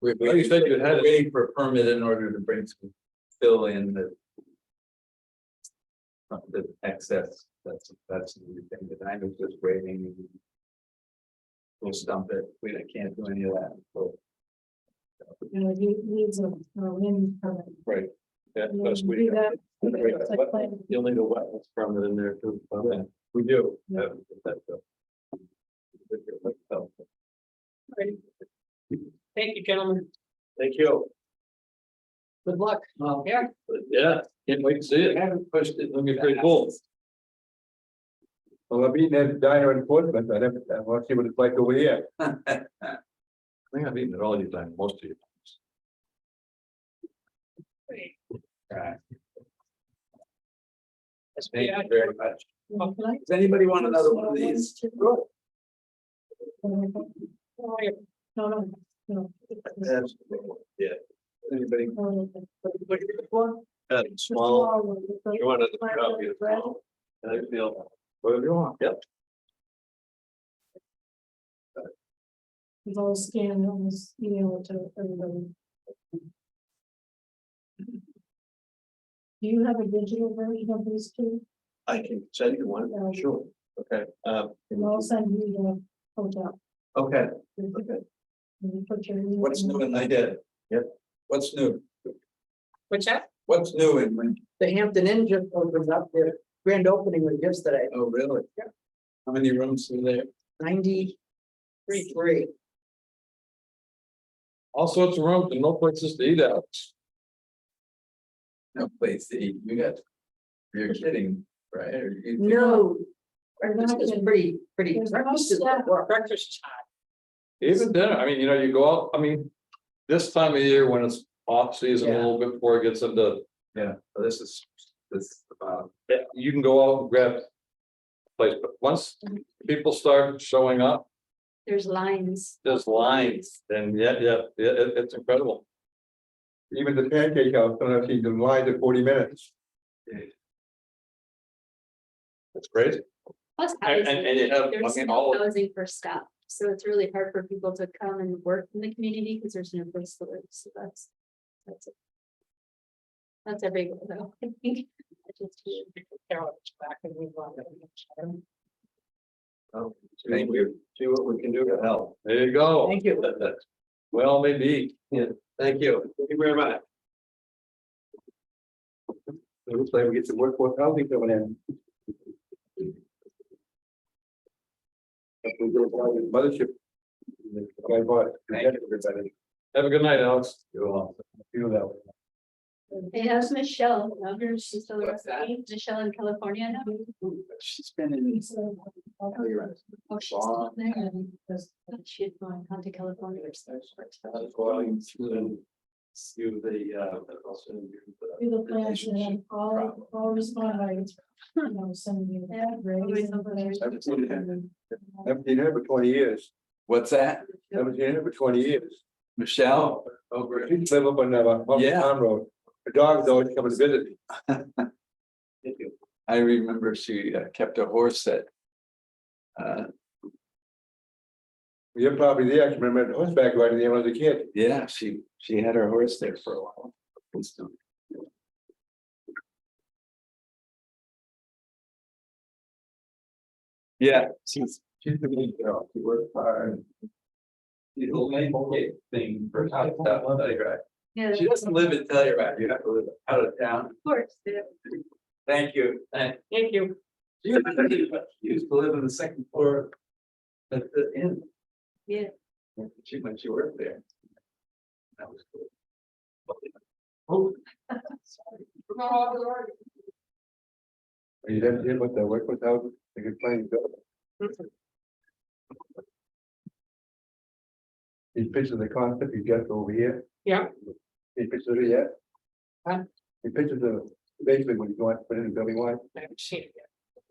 We- Well, you said you had it. Waiting for a permit in order to bring some fill in the. uh, The excess, that's, that's the only thing that I was just waiting. We'll stump it, we can't do any of that, so. you know, he needs a, a wind permit. That You know, plus you we. do that, You'll you get a site plan. need a wetlands permit in there too. Yeah, We do. Yeah. Thank you, gentlemen. Thank you. Good luck. Yeah. Yeah, can't wait to see it. I haven't pushed it. Let me pretty cool. Well, I've been at diner in Portsmouth, I never, I want to see what it's like over here. I think I've eaten it all you time, most of you. Thank you very much. Well, can I- Does anybody want another one of these? No, no, no. That's- Yeah. Anybody? Got it small. You Small. want another copy of it? I feel. Whatever you want. Yep. He's all scanned on this email to everybody. Do you have a digital version of these two? I can send you one. No. Sure. Okay, um, And I'll send you the hotel. Okay, What's what's new in idea? Yep. What's new? What's that? What's new in Lynn? The Hampton Inn just opened up their grand opening was yesterday, Oh, really? Yeah. How many rooms are there? ninety-three. all sorts of rooms and no places to eat out. No place to eat, you got. You're kidding, right? Or you think- No. Breakfast is pretty, pretty. There's no breakfast is- staff. Breakfast time. Even dinner, I mean, you know, you go out, I mean, this time of year when it's off season a Yeah. little bit before it gets into Yeah, well, this is, this is about, Yeah, you can go out and grab. a Place, but once people start showing up, There's lines. there's lines, and yeah, yeah, yeah, it- it's incredible. Even the pancake house, sometimes she's in line to forty minutes. It's crazy. Plus And, housing. and, and you have, I There's mean, no all, of- housing for staff, so it's really hard for people to come and work in the community because there's no place to live, so that's. That's it. That's everywhere though. I think. I just- Carol's back and we want to- thank you. see what we can do to help. There you go. Thank you. Well, maybe. Thank you. Thank you very much. It looks like we get some workforce housing coming in. If we go down to the Mothership. I bought it. Thank Everybody Have a good night, Alex. feel that way. And how's Michelle, now her- she's still What's that? recipe, Michelle in California now? She's been in. Oh, you're right. Oh, she's still Long. there, and she had gone on to California or something. I was going through through the, uh, also through the Do the plans and then all, all respond items, you know, send you. Yeah, always something. Haven't seen it. Haven't seen her for twenty years. What's that? Haven't seen her for twenty years. Michelle? Over. She live up on, uh, Humboldt Yeah. Town Road. Her dog's always coming to visit me. I remember she uh, kept a horse that. Uh, You're probably there. I can remember horseback riding there when I was a kid. yeah, she, she had her horse there for a while. Yeah, she's, she's a big girl, she worked hard. The old name thing for out of town, Telluride. Yeah, She of doesn't live in Telluride, you have to live out of town. course, yeah. Thank you. Thank Thank you. She used to live- she used to live on the second floor at the inn. Yeah. She, when she worked there. That was cool. Oh. Are you done here with the work without, they could play. These pictures of the concept you got over here. Yeah. These pictures of it yet? Huh? These pictures of basically when you go out, put in the building one, I haven't seen it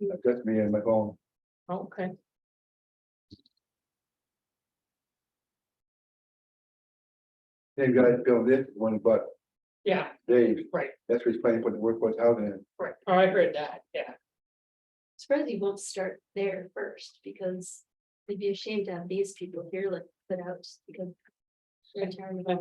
yet. just me and my phone. Okay. Same guys built this one, but Yeah, Dave, right, that's what he's planning for the workforce housing. in. right. Oh, I heard that, yeah. Surprised you won't start there first, because they'd be ashamed to have these people here like put out, because. they're tired of